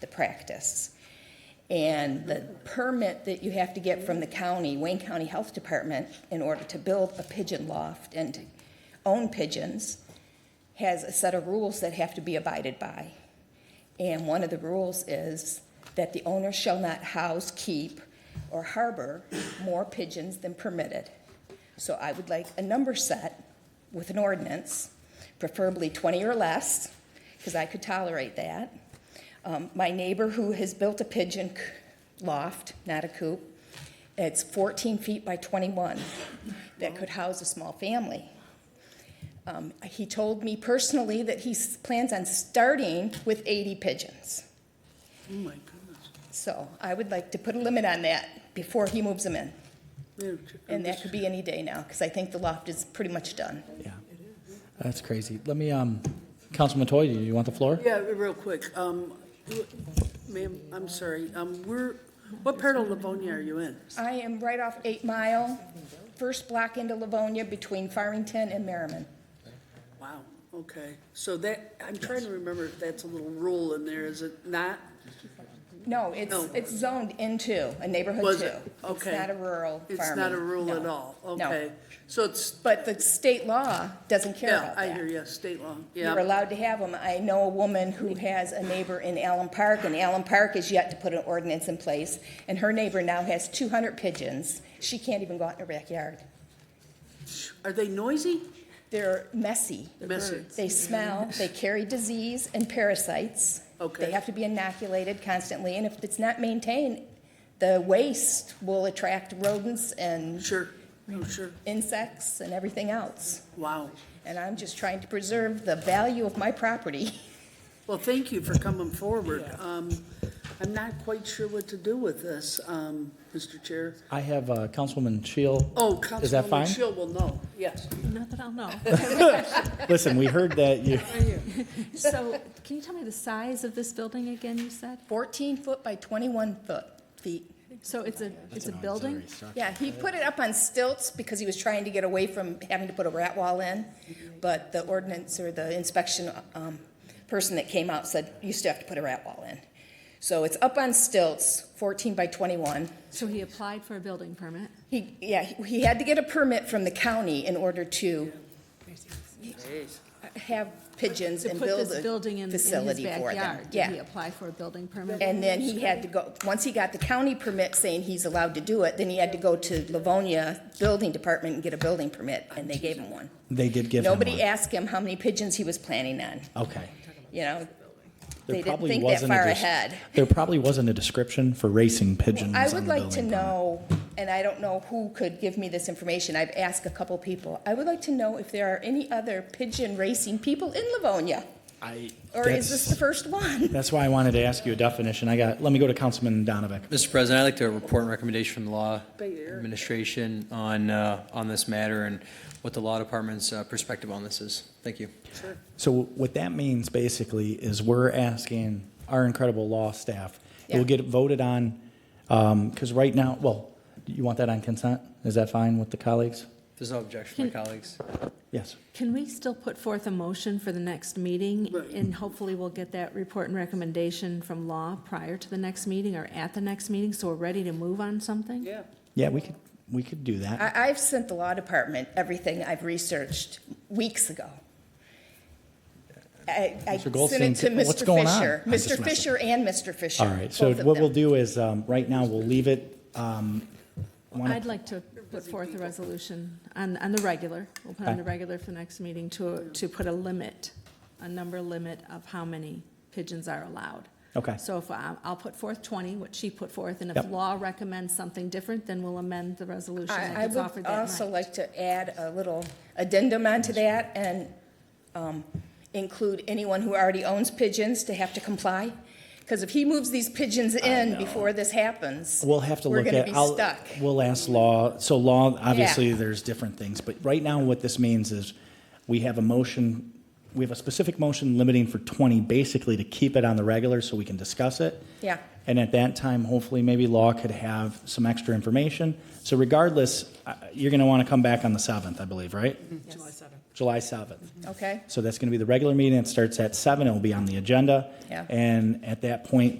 the practice. And the permit that you have to get from the county, Wayne County Health Department, in order to build a pigeon loft and to own pigeons, has a set of rules that have to be abided by. And one of the rules is that the owner shall not house, keep, or harbor more pigeons than permitted. So I would like a number set with an ordinance, preferably 20 or less, because I could tolerate that. Um, My neighbor who has built a pigeon c- loft, not a coop, it's 14 feet by 21, that could house a small family. Um, He told me personally that he s- plans on starting with 80 pigeons. Oh, my goodness. So I would like to put a limit on that before he moves them in. Madam Chair, And that this- could be any day now, because I think the loft is pretty much done. Yeah, that's crazy. Let me, um, Councilman Toy, do you want the floor? Yeah, real quick, um, ma'am, I'm sorry, um, we're, what part of Livonia are you in? I am right off Eight Mile, first block into Livonia between Farmington and Merriman. Wow, okay, so that, I'm trying to remember if that's a little rule in there, is it not? No, it's, No. it's zoned into a neighborhood Was too. it? It's Okay. not a rural farming. It's not a rule at No. all, No. okay, so it's, But the state law doesn't care yeah, about that. I hear you, state law, You're yeah, allowed to have them. I know a woman who has a neighbor in Allen Park, and Allen Park has yet to put an ordinance in place, and her neighbor now has two hundred pigeons. She can't even go out in her backyard. are they noisy? They're messy. Messy. Mm-hmm. They smell, they carry disease and parasites. Okay. They have to be inoculated constantly, and if it's not maintained, the waste will attract rodents and Sure, oh, sure, insects and everything else. wow. And I'm just trying to preserve the value of my property. Well, thank you for coming forward. Um, I'm not quite sure what to do with this, um, Mr. Chair. I have, uh, Councilwoman Shield. Oh, Is that Councilwoman fine? Shill will know, yes. Not that I'll know. Listen, we heard that you, So, can you tell me the size of this building again, you said? Fourteen foot by twenty-one foot, feet. So it's a, it's a building? Yeah, he put it up on stilts because he was trying to get away from having to put a rat wall in. But the ordinance or the inspection um, person that came out said, you still have to put a rat wall in. So it's up on stilts, 14 by 21. So he applied for a building permit? He, yeah, he- he had to get a permit from the county in order to have pigeons To and put build this a building in, in his facility for them. backyard? Did he Yeah. apply for a building permit? And then he had to go, once he got the county permit saying he's allowed to do it, then he had to go to Livonia Building Department and get a building permit, and they gave him one. they did give him Nobody one. asked him how many pigeons he was planning on, Okay. you know? There They didn't probably think that wasn't a far dis- ahead. There probably wasn't a description for racing pigeons I on would the like to building permit. know, and I don't know who could give me this information, I've asked a couple people. I would like to know if there are any other pigeon racing people in Livonia, I, or is this the that's, first one? that's why I wanted to ask you a definition. I got, let me go to Councilman Donovan. Mr. President, I'd like to report and recommendation from the Law Bay Area. Administration on, uh, on this matter and what the Law Department's uh, perspective on this is. Thank you. So what that means basically is we're asking our incredible law staff, it Yeah. will get voted on, because right now, well, you want that on consent? Is that fine with the colleagues? There's no objection, my colleagues. Yes. Can we still put forth a motion for the next meeting? Right. And hopefully we'll get that report and recommendation from law prior to the next meeting or at the next meeting, so we're ready to move on something? Yeah, Yeah, we could, we could do that. I, I've sent the law department everything I've researched weeks ago. I, I Mr. sent Goldstein, it to what's Mr. going on? Fisher. I'm just Mr. messing. Fisher and Mr. Fisher. All right, so both of what them. we'll do is, um, right now, we'll leave it. um, wanna- I'd like to put forth a resolution on, on the regular, we'll put on the regular for the next meeting to, to put a limit, a number limit of how many pigeons are allowed. Okay. So if, I- I'll put forth 20, what she put forth, and if Yep. law recommends something different, then we'll amend the resolution I, I that gets offered would that also night. like to add a little addendum onto that and um, include anyone who already owns pigeons to have to comply. Because if he moves these pigeons in before this happens. We'll have to look We're at. going to I'll- be stuck. We'll ask law, so law, obviously, there's different things, but right now, what this means is we have a motion, we have a specific motion limiting for 20, basically to keep it on the regular so we can discuss it. Yeah. And at that time, hopefully, maybe law could have some extra information. So regardless, uh, you're going to want to come back on the 7th, I believe, right? July 7th. July 7th. Okay? So that's going to be the regular meeting. It starts at 7. It will be on the agenda. Yeah. And at that point,